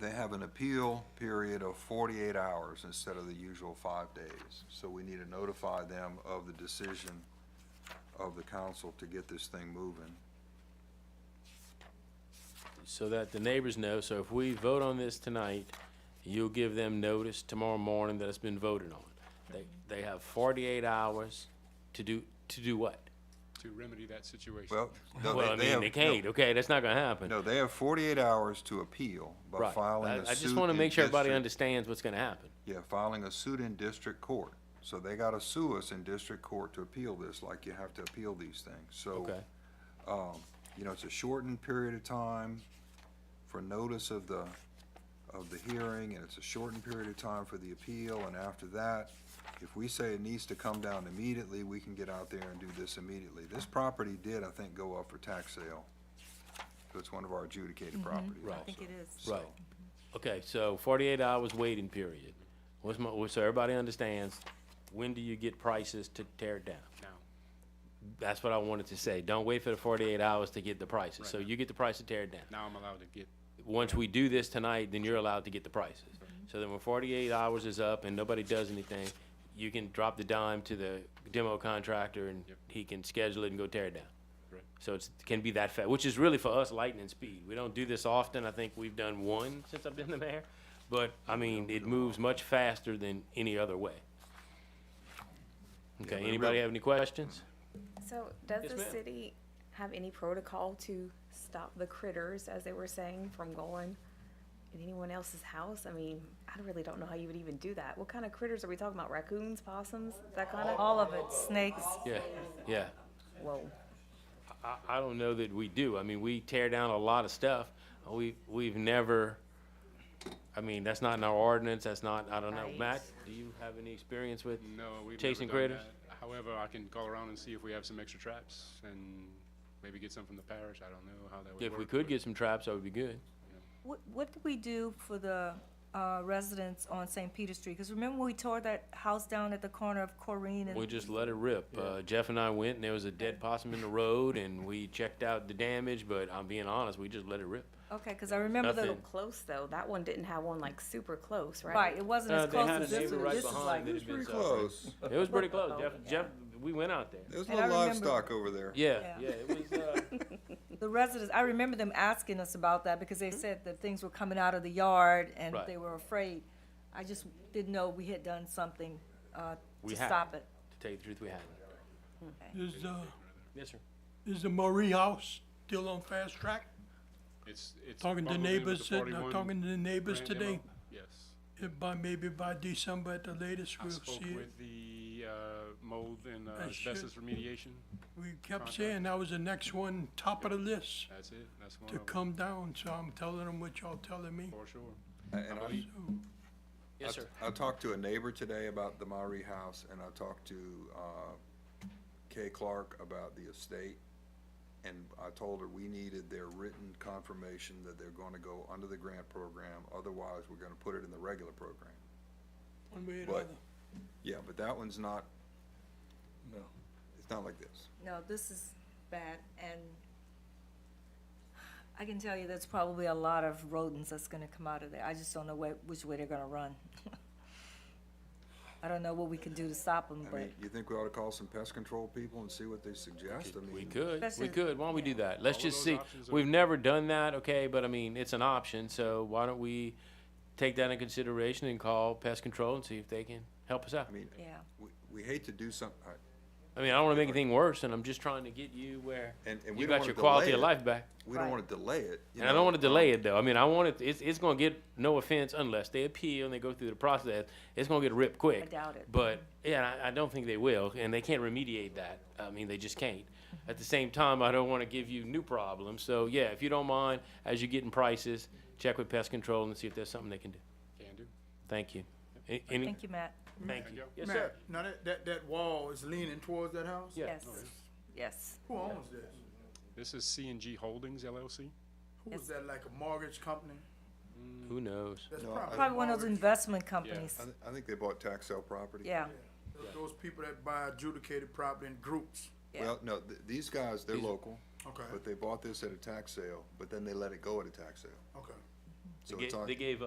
they have an appeal period of forty-eight hours instead of the usual five days. So we need to notify them of the decision of the council to get this thing moving. so that the neighbors know, so if we vote on this tonight, you'll give them notice tomorrow morning that it's been voted on. They, they have forty-eight hours to do, to do what? to remedy that situation. Well, no, Well, they, I they mean, have, they no, can't, okay, that's not gonna happen. no, they have forty-eight hours to appeal by Right. filing I, a I just suit wanna in make sure everybody district- understands what's gonna happen. Yeah, filing a suit in district court. So they gotta sue us in district court to appeal this, like you have to appeal these things. So, Okay, um, you know, it's a shortened period of time for notice of the, of the hearing, and it's a shortened period of time for the appeal, and after that, if we say it needs to come down immediately, we can get out there and do this immediately. This property did, I think, go up for tax sale. So it's one of our adjudicated properties. Mm-hmm. also. Right. I I think it is. right. Okay, so forty-eight hours waiting period. What's my, so everybody understands, when do you get prices to tear it down? Now, That's what I wanted to say. Don't wait for the forty-eight hours to get the prices. So you get the price to tear it down. now I'm allowed to get, once we do this tonight, then you're allowed to get the prices. So then when forty-eight hours is up and nobody does anything, you can drop the dime to the demo contractor and Yep. he can schedule it and go tear it down. Right. So it's, can be that fast, which is really for us lightning speed. We don't do this often. I think we've done one since I've been the mayor. But, I mean, it moves much faster than any other way. but Okay, it anybody really- have any questions? So does Yes, the ma'am. city have any protocol to stop the critters, as they were saying, from going in anyone else's house? I mean, I really don't know how you would even do that. What kind of critters are we talking about? Raccoons, possums, that kind of? All of it, snakes. Yeah, yeah. Whoa. I, I don't know that we do. I mean, we tear down a lot of stuff. We, we've never, I mean, that's not in our ordinance, that's not, I don't know. Right. Matt, do you have any experience with? no, we've never Chasing done critters? that. However, I can call around and see if we have some extra traps and maybe get some from the parish. I don't know how that would work. If we could but get some traps, that would be good. What, what did we do for the uh, residents on St. Peter Street? Because remember when we tore that house down at the corner of Corrine We and, just let it rip. Uh, Jeff and I went and there was a dead possum in the road and we checked out the damage, but I'm being honest, we just let it rip. okay, because I remember the, Nothing. Close, though. That one didn't have one like super close, right? right, it wasn't Uh, as they close had as a this neighbor one. right This is behind like, that It's had been pretty suffering. close. It was pretty close. Jeff, Jeff, we went out there. There's a And I little remember- livestock over there. Yeah, yeah, it was, uh, the residents, I remember them asking us about that because they said that things were coming out of the yard and Mm-hmm. Right. they were afraid. I just didn't know we had done something uh, We to had. stop it. to tell you the truth, we hadn't. Is, uh, Yes, sir. is the Murray House still on fast track? It's, it's. Talking to bundled in with neighbors, the uh, 41 talking to the neighbors grand today, demo. Yes. If by, maybe by December at the latest, I we'll spoke see it. with the, uh, mold and uh, I should- asbestos remediation. We kept contact. saying that was the next one, top of the list That's it. That's one to of them, come down, so I'm telling them what y'all telling me. for sure. And I, I- Yes, sir. I talked to a neighbor today about the Maury house, and I talked to, uh, Kay Clark about the estate. And I told her we needed their written confirmation that they're gonna go under the grant program, otherwise we're gonna put it in the regular program. One way or But, another. yeah, but that one's not, no, it's not like this. No, this is bad, and I can tell you there's probably a lot of rodents that's gonna come out of there. I just don't know where, which way they're gonna run. I don't know what we can do to stop them, I but mean, you think we ought to call some pest control people and see what they suggest? I mean. We could, That's we it. could, why don't we do that? Let's All of just those see, options are- we've never done that, okay, but I mean, it's an option, so why don't we take that in consideration and call pest control and see if they can help us out? I mean, yeah. we, we hate to do something, I mean, I don't wanna make anything worse, and I'm just trying to get you where And- and we you don't got wanna your quality delay of it. life back. we don't Right. wanna delay it. you And I know, don't wanna um, delay it though, I mean, I want it, it's, it's gonna get, no offense, unless they appeal and they go through the process, it's gonna get ripped quick. I doubt it. But, yeah, I, I don't think they will, and they can't remediate that, I mean, they just can't. At the same time, I don't wanna give you new problems, so yeah, if you don't mind, as you're getting prices, check with pest control and see if there's something they can do. Can do. Thank you. A- Any, Thank you, Matt. thank Thank you. you. Yes, Matt, sir. now that, that, that wall is leaning towards that house? Yeah. Yes, yes. Who owns this? This is C and G Holdings LLC. Who is that, like a mortgage company? Who knows? That's No, probably. Probably one of those mortgage. investment companies, I, th- I think they bought tax sale property. yeah. Those people that buy adjudicated property in groups. Yeah. Well, no, th- these guys, they're These- local, Okay, but they bought this at a tax sale, but then they let it go at a tax sale. okay. So They it's ga- on- They gave